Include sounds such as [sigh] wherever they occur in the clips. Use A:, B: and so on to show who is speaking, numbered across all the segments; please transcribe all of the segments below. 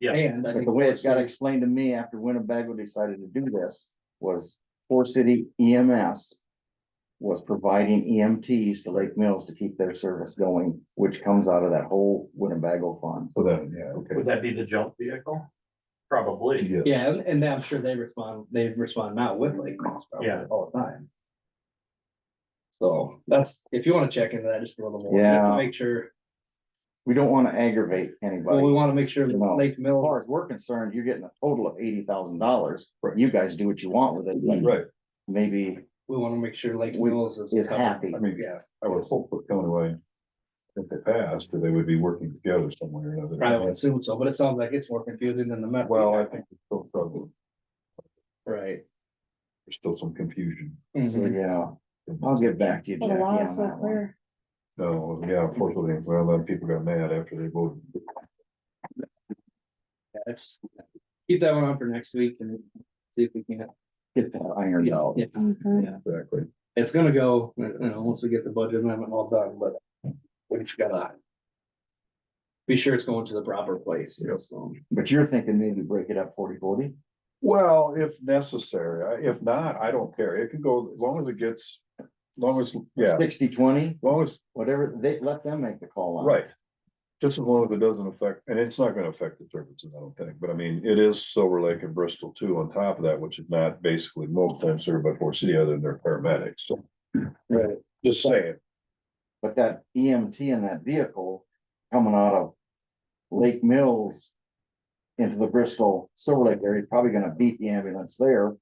A: Yeah.
B: And
C: But
B: I think.
C: the way it
B: Forest
C: got
B: City-
C: explained to me after Winnebago decided to do this was Four City EMS. Was providing EMTs to Lake Mills to keep their service going, which comes out of that whole Winnebago fund.
D: So then, yeah, okay.
A: Would that be the jump vehicle? Probably,
D: Yeah.
B: Yeah, and- and I'm sure they respond, they respond now with Lake Mills probably
A: Yeah.
B: all the time. So that's, if you wanna check into that just a little more, just
C: Yeah.
B: to make sure,
C: We don't wanna aggravate
B: well, we
C: anybody.
B: wanna make sure
C: You know,
B: that Lake
C: As far
B: Mills,
C: as we're concerned, you're getting a total of eighty thousand dollars, but you guys do what you want with it. but
D: Right,
C: Maybe,
B: we wanna make sure Lake
C: We-
B: Mills is.
C: is
B: covered.
C: happy.
D: I mean-
B: Yeah,
D: I would hope for County Line. If they passed, that they would be working together somewhere or another.
B: probably would assume so, but it sounds like it's more confusing than the map.
D: Well, I think there's still trouble,
B: Right. Mm-hmm.
D: there's still some confusion.
C: so,
B: mhm.
C: yeah, I'll get back to you, Jackie,
E: The law
C: on
E: is so
C: that one.
E: clear.
D: No, yeah, unfortunately, well, then people got mad after they voted.
B: That's, keep that one on for next week and see if we can.
C: Get that ironed out.
B: Yeah,
E: Mhm.
D: Exactly.
B: it's gonna go, you know, once we get the budget amendment all done, but we just gotta. Be sure it's going to the proper place,
D: Yep.
B: so.
C: But you're thinking maybe break it up forty forty?
D: Well, if necessary, I- if not, I don't care, it can go, as long as it gets, as long as, yeah, as
C: Sixty twenty,
D: long as,
C: whatever, they, let them make the call on. it.
D: right. Just as long as it doesn't affect, and it's not gonna affect the services, I don't think, but I mean, it is Silver Lake and Bristol too, on top of that, which is not basically most times served by Fort City other than their paramedics, so.
B: Right.
D: Just saying,
C: But that EMT in that vehicle coming out of Lake Mills into the Bristol Silver Lake area, is probably gonna beat the ambulance there.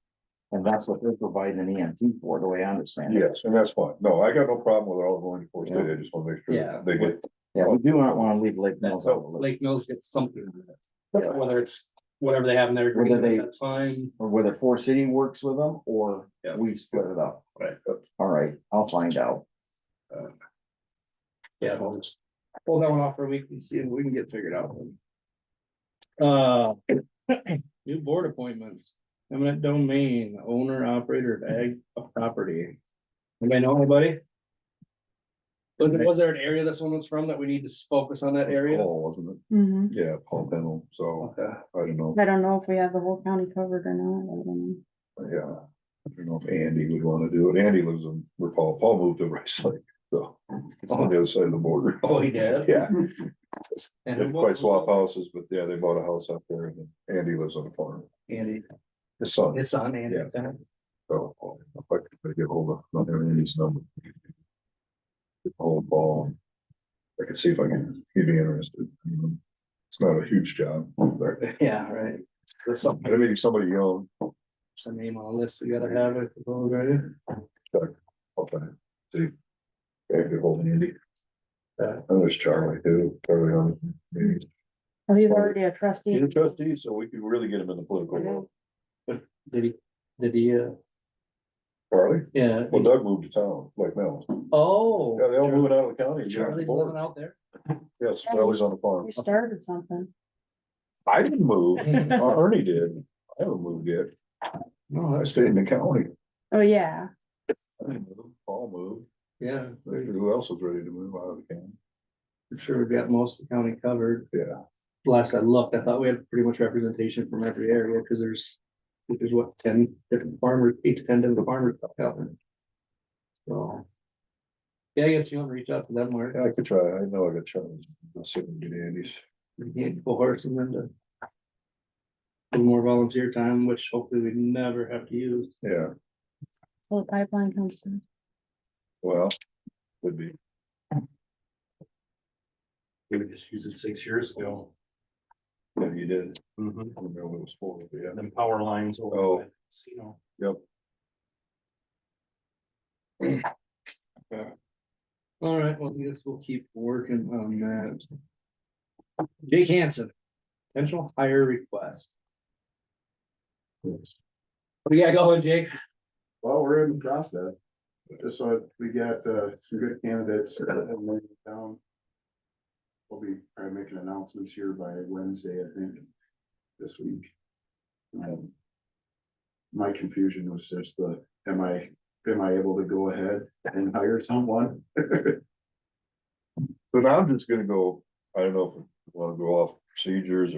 C: And that's what they're providing an EMT for, the way I understand it.
D: yes, and that's fine, no, I got no problem with all going to Fort City, I just wanna make
B: Yeah.
D: sure they get.
C: Yeah, we do not wanna leave Lake Mills out of the loop,
B: Lake Mills gets something,
C: Yeah.
B: whether it's whatever they have in their agreement
C: Whether they-
B: that's fine.
C: or whether Four City works with them or
B: Yeah.
C: we split it up.
B: Right.
C: All right, I'll find out.
B: Yeah, we'll just hold that one off for a week and see if we can get figured out. Uh, new board appointments, eminent domain, owner, operator of ag of property. Anybody know anybody? Was, was there an area this one was from that we need to focus on that area?
D: Paul, wasn't
E: Mhm.
D: it? Yeah, Paul Pennell, so,
B: Okay.
D: I don't know,
E: I don't know if we have the whole county covered or not. I don't know.
D: yeah. I don't know if Andy would wanna do it, Andy lives in, where Paul, Paul moved to [laughs] Rice Lake, so, it's on the other side of the border.
B: Oh, he did?
D: Yeah,
B: And
D: didn't
B: who
D: quite
B: was-
D: swap houses, but yeah, they bought a house up there, and Andy lives on a farm,
B: Andy,
D: his son,
B: it's on Andy.
D: so, if I could get hold of, not having Andy's number. Old ball, I can see if I can, he'd be interested, you know. it's not a huge job, but
B: Yeah, right. There's something,
D: maybe somebody young,
B: some name on the list we gotta have it, right?
D: okay, see. Yeah, get hold of Andy.
B: Yeah.
D: And there's Charlie too, Charlie on, he's
E: Well, Oh, he's already a trustee.
D: He's a trustee, so we could really get him in the political world.
B: Did he, did he, uh,
D: Charlie,
B: yeah?
D: well Doug moved to town, like Mel.
B: Oh.
D: Yeah, they all moving out of the county. and you're on the
B: Charlie's
D: board.
B: living out [laughs] there?
D: Yes, Charlie's on the farm.
E: We started something.
D: I didn't move, Ernie did. I haven't moved yet. No, I stayed in the county.
E: Oh, yeah.
D: I didn't move. Paul moved.
B: Yeah, I'm
D: Who else is ready to move out of the county?
B: sure we've got most of the county covered.
D: Yeah.
B: Last I looked, I thought we had pretty much representation from every area, because there's, there's what, ten different farmers, eight to ten different farmers out there. So. Yeah, I guess you want to reach out to them, Mark.
D: Yeah, I could try. I know I got Charlie's. I'll see if I can get Andy's.
B: You can't coerce them into. a little More volunteer time, which hopefully we never have to use.
D: Yeah,
E: So the pipeline comes through.
D: well, would be.
A: we would just use it six years ago,
D: Yeah, you did.
A: and
D: I don't know what it was for, but yeah.
A: then power lines
D: Mm-hmm. Oh.
A: over, by the casino.
B: All right, well, I guess we'll keep working on that. Jake Hanson, potential hire request.
D: Yes.
B: What do you got going, Jake?
F: Well, we're in the process. Just so we got uh some good candidates that have laid it down. We'll be uh, making announcements here by Wednesday, I think, this week. Um, My confusion was just the, am I, am I able to go ahead and hire someone? [laughs]
D: But I'm just gonna go, I don't know wanna go off procedures